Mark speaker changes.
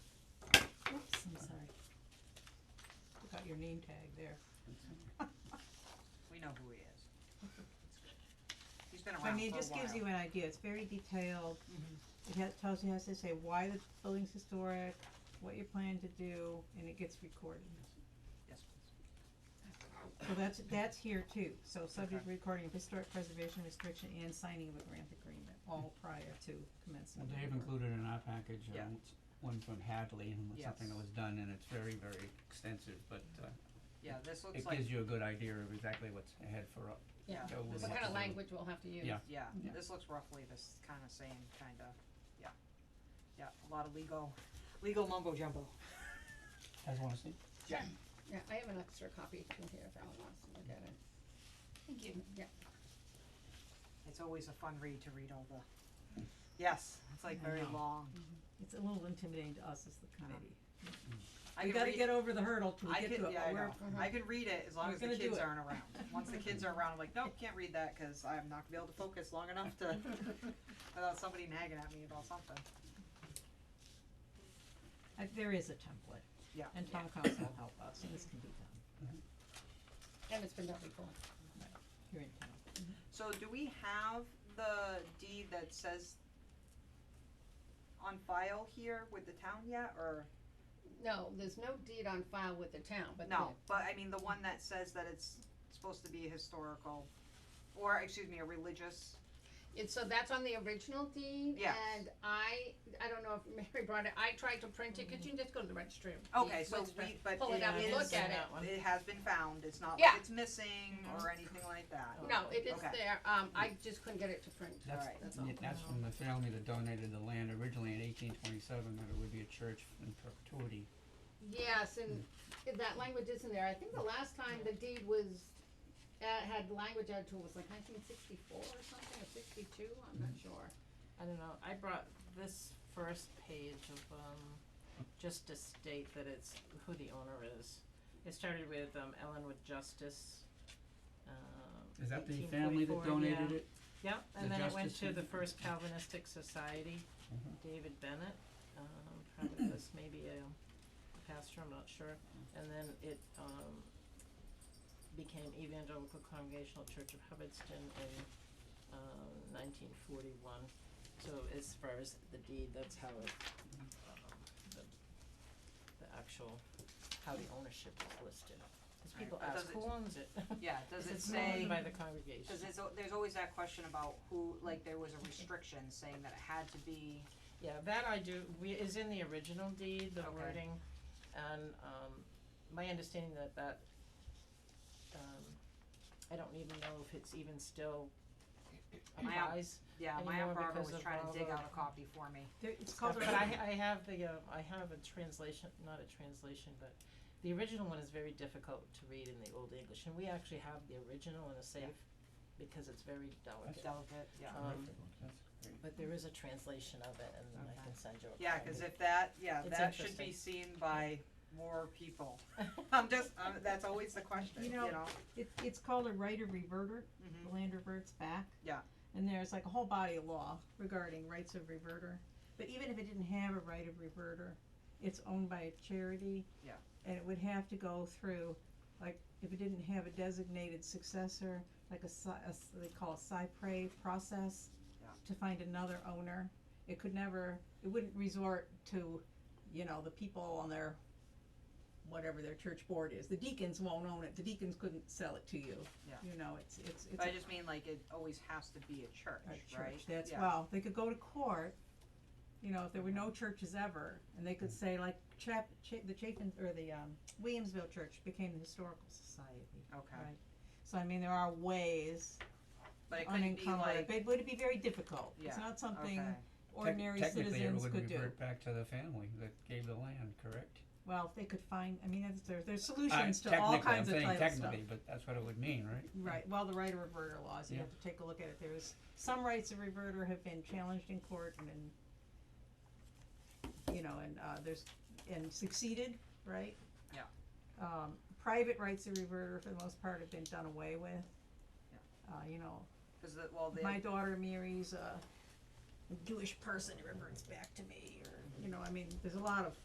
Speaker 1: your name tag there.
Speaker 2: We know who he is. He's been around Oh, for a
Speaker 1: I
Speaker 2: while.
Speaker 1: mean, it just gives you an idea, it's very detailed,
Speaker 2: Mhm.
Speaker 1: it has, tells you, has to say why the building's historic, what you plan to do, and it gets recorded.
Speaker 2: Yes, please.
Speaker 1: So that's, that's here too, so subject
Speaker 2: Okay.
Speaker 1: recording of historic preservation restriction and signing of a grant agreement, all prior to
Speaker 3: Well,
Speaker 1: commencement. of
Speaker 3: they've
Speaker 1: the work.
Speaker 3: included in our package, uh,
Speaker 2: Yeah.
Speaker 3: s- one from Hadley, and was something that
Speaker 2: Yes.
Speaker 3: was done, and it's very, very extensive, but, uh,
Speaker 2: yeah, this looks
Speaker 3: it
Speaker 2: like,
Speaker 3: gives you a good idea of exactly what's ahead for, uh,
Speaker 2: yeah,
Speaker 3: go with
Speaker 2: this looks-
Speaker 3: what to
Speaker 4: What kind of
Speaker 3: do.
Speaker 4: language we'll have to use.
Speaker 3: Yeah.
Speaker 2: yeah,
Speaker 3: Yeah.
Speaker 2: this looks roughly this kinda same kinda, yeah. Yeah, a lot of legal, legal mumbo jumbo.
Speaker 3: Guys wanna see?
Speaker 4: Yeah, I have an extra copy from here if Alan wants to look at it. Thank you. Yeah,
Speaker 2: It's always a fun read to read all the, yes, it's like
Speaker 1: I
Speaker 2: very
Speaker 1: know.
Speaker 2: long.
Speaker 1: It's a little intimidating to us as the committee.
Speaker 2: I
Speaker 1: We
Speaker 2: can
Speaker 1: gotta
Speaker 2: read-
Speaker 1: get over the hurdle to
Speaker 2: I
Speaker 1: get
Speaker 2: could,
Speaker 1: to it,
Speaker 2: yeah,
Speaker 1: but
Speaker 2: I know.
Speaker 1: we're,
Speaker 2: I could read it as long
Speaker 1: We're
Speaker 2: as the
Speaker 1: gonna do
Speaker 2: kids
Speaker 1: it.
Speaker 2: around around. Once the kids are around, I'm like, nope, can't read that because I'm not gonna be able to focus long enough to without somebody nagging at me about something.
Speaker 1: uh, there is a template,
Speaker 2: Yeah.
Speaker 1: and town council will help us, and this can be done
Speaker 4: and it's been done before.
Speaker 1: here in town.
Speaker 2: So do we have the deed that says on file here with the town yet, or
Speaker 4: No, there's no deed on file with the town, but
Speaker 2: no? But I mean, the one that says that it's supposed to be historical, or excuse me, a religious.
Speaker 4: the- it's, so that's on the original deed.
Speaker 2: Yeah.
Speaker 4: And I, I don't know if Mary brought it, I tried to print it, could you just go to the registry? of
Speaker 2: Okay,
Speaker 4: deeds,
Speaker 2: so
Speaker 4: Webster,
Speaker 2: we but
Speaker 4: Pull it
Speaker 2: it
Speaker 4: out and
Speaker 2: is-
Speaker 4: look at it.
Speaker 2: It has been found. It's not like
Speaker 4: Yeah.
Speaker 2: it's missing or anything like that.
Speaker 5: Oh.
Speaker 4: No, it is
Speaker 2: Okay.
Speaker 4: there, um, I just couldn't get it to print.
Speaker 3: That's,
Speaker 2: Alright.
Speaker 4: That's all.
Speaker 3: yeah, that's from the family that donated the land originally in eighteen twenty-seven, that it would be a church in perpetuity.
Speaker 4: Yes, and if that language isn't there, I think the last time the deed was, uh, had language added to it was like nineteen sixty-four or something, or sixty-two, I'm not sure.
Speaker 5: I don't know, I brought this first page of, um, just to state that it's who the owner is. It started with, um, Ellenwood Justice, um,
Speaker 3: Is that the
Speaker 5: eighteen
Speaker 3: family that
Speaker 5: forty-four, yeah.
Speaker 3: donated it?
Speaker 5: Yep,
Speaker 3: The
Speaker 5: and then it went
Speaker 3: Justice
Speaker 5: to the
Speaker 3: Society?
Speaker 5: First Calvinistic Society,
Speaker 3: Mhm.
Speaker 5: David Bennett, um, probably was maybe a pastor, I'm not sure. And then it, um, became Evangelical Congregational Church of Hubbardston in, um, nineteen forty-one. So as far as the deed, that's how it, um, the, the actual, how the ownership is listed. Cause
Speaker 2: Right,
Speaker 5: people
Speaker 2: but
Speaker 5: ask,
Speaker 2: does it-
Speaker 5: who owns it?
Speaker 2: Yeah, does it
Speaker 5: It's owned
Speaker 2: say,
Speaker 5: by the congregation.
Speaker 2: cause there's, al- there's always that question about who, like, there was a restriction saying that it had to be,
Speaker 5: Yeah, that I do, we, is in the original deed, the
Speaker 2: Okay.
Speaker 5: wording, and, um, my understanding that that, um, I don't even know if it's even still
Speaker 2: My op-
Speaker 5: applies,
Speaker 2: yeah, my
Speaker 5: Anymore
Speaker 2: aunt Barbara
Speaker 5: because
Speaker 2: was
Speaker 5: of
Speaker 2: trying to
Speaker 5: all
Speaker 2: dig
Speaker 5: the-
Speaker 2: out a copy for me.
Speaker 1: There, it's called
Speaker 5: but
Speaker 1: a
Speaker 5: I, I have the, uh, I have a translation, not a translation, but the original one is very difficult to read in the Old English, and we actually have the original in a safe, because it's very delicate,
Speaker 2: Delicate, yeah.
Speaker 5: um,
Speaker 3: That's great.
Speaker 5: but there is a translation of it, and I
Speaker 2: Okay.
Speaker 5: can send you a copy.
Speaker 2: Yeah, cause if that, yeah,
Speaker 5: It's
Speaker 2: that should
Speaker 5: interesting.
Speaker 2: be seen by more people. I'm just, um, that's always the question,
Speaker 1: You
Speaker 2: you
Speaker 1: know-
Speaker 2: know?
Speaker 1: It, it's called a right of reverter,
Speaker 2: Mhm.
Speaker 1: the land reverts back.
Speaker 2: Yeah.
Speaker 1: And there's like a whole body of law regarding rights of reverter, but even if it didn't have a right of reverter, it's owned by a charity.
Speaker 2: Yeah.
Speaker 1: And it would have to go through, like, if it didn't have a designated successor, like a si- a s- they call a cypre process.
Speaker 2: Yeah.
Speaker 1: To find another owner, it could never, it wouldn't resort to, you know, the people on their, whatever their church board is, the deacons won't own it, the deacons couldn't sell it to you.
Speaker 2: Yeah.
Speaker 1: You know, it's, it's, it's.
Speaker 2: But I
Speaker 1: a
Speaker 2: just mean like it always has to be a church,
Speaker 1: a
Speaker 2: right?
Speaker 1: church, that's,
Speaker 2: Yeah.
Speaker 1: well, they could go to court, you know, if there were no churches ever, and they
Speaker 2: Mm.
Speaker 1: could say like Chap, Cha- the Chapin, or the, um, Williamsville Church became the Historical Society,
Speaker 2: Okay,
Speaker 1: right? So I mean, there are ways
Speaker 2: but it couldn't be
Speaker 1: unencumbered,
Speaker 2: like,
Speaker 1: but it would be very difficult, it's
Speaker 2: Yeah,
Speaker 1: not
Speaker 2: okay,
Speaker 1: something
Speaker 3: Tec-
Speaker 1: ordinary citizens could do.
Speaker 3: Technically, it would revert back to the family that gave the land, correct?
Speaker 1: Well, if they could find, I mean, that's, there, there's
Speaker 3: I-
Speaker 1: solutions to all
Speaker 3: technically,
Speaker 1: kinds of title stuff.
Speaker 3: I'm saying technically, but that's what it would mean, right?
Speaker 1: Right, well, the right of reverter laws, you
Speaker 3: Yeah.
Speaker 1: have to take a look at it, there's, some rights of reverter have been challenged in court and then, you know, and, uh, there's, and succeeded, right?
Speaker 2: Yeah.
Speaker 1: Um, private rights of reverter for the most part have been done away with.
Speaker 2: Yeah.
Speaker 1: Uh, you know,
Speaker 2: cause the, well, the,
Speaker 1: my daughter marries a Jewish person, it reverts back to me, or, you know, I mean, there's a lot of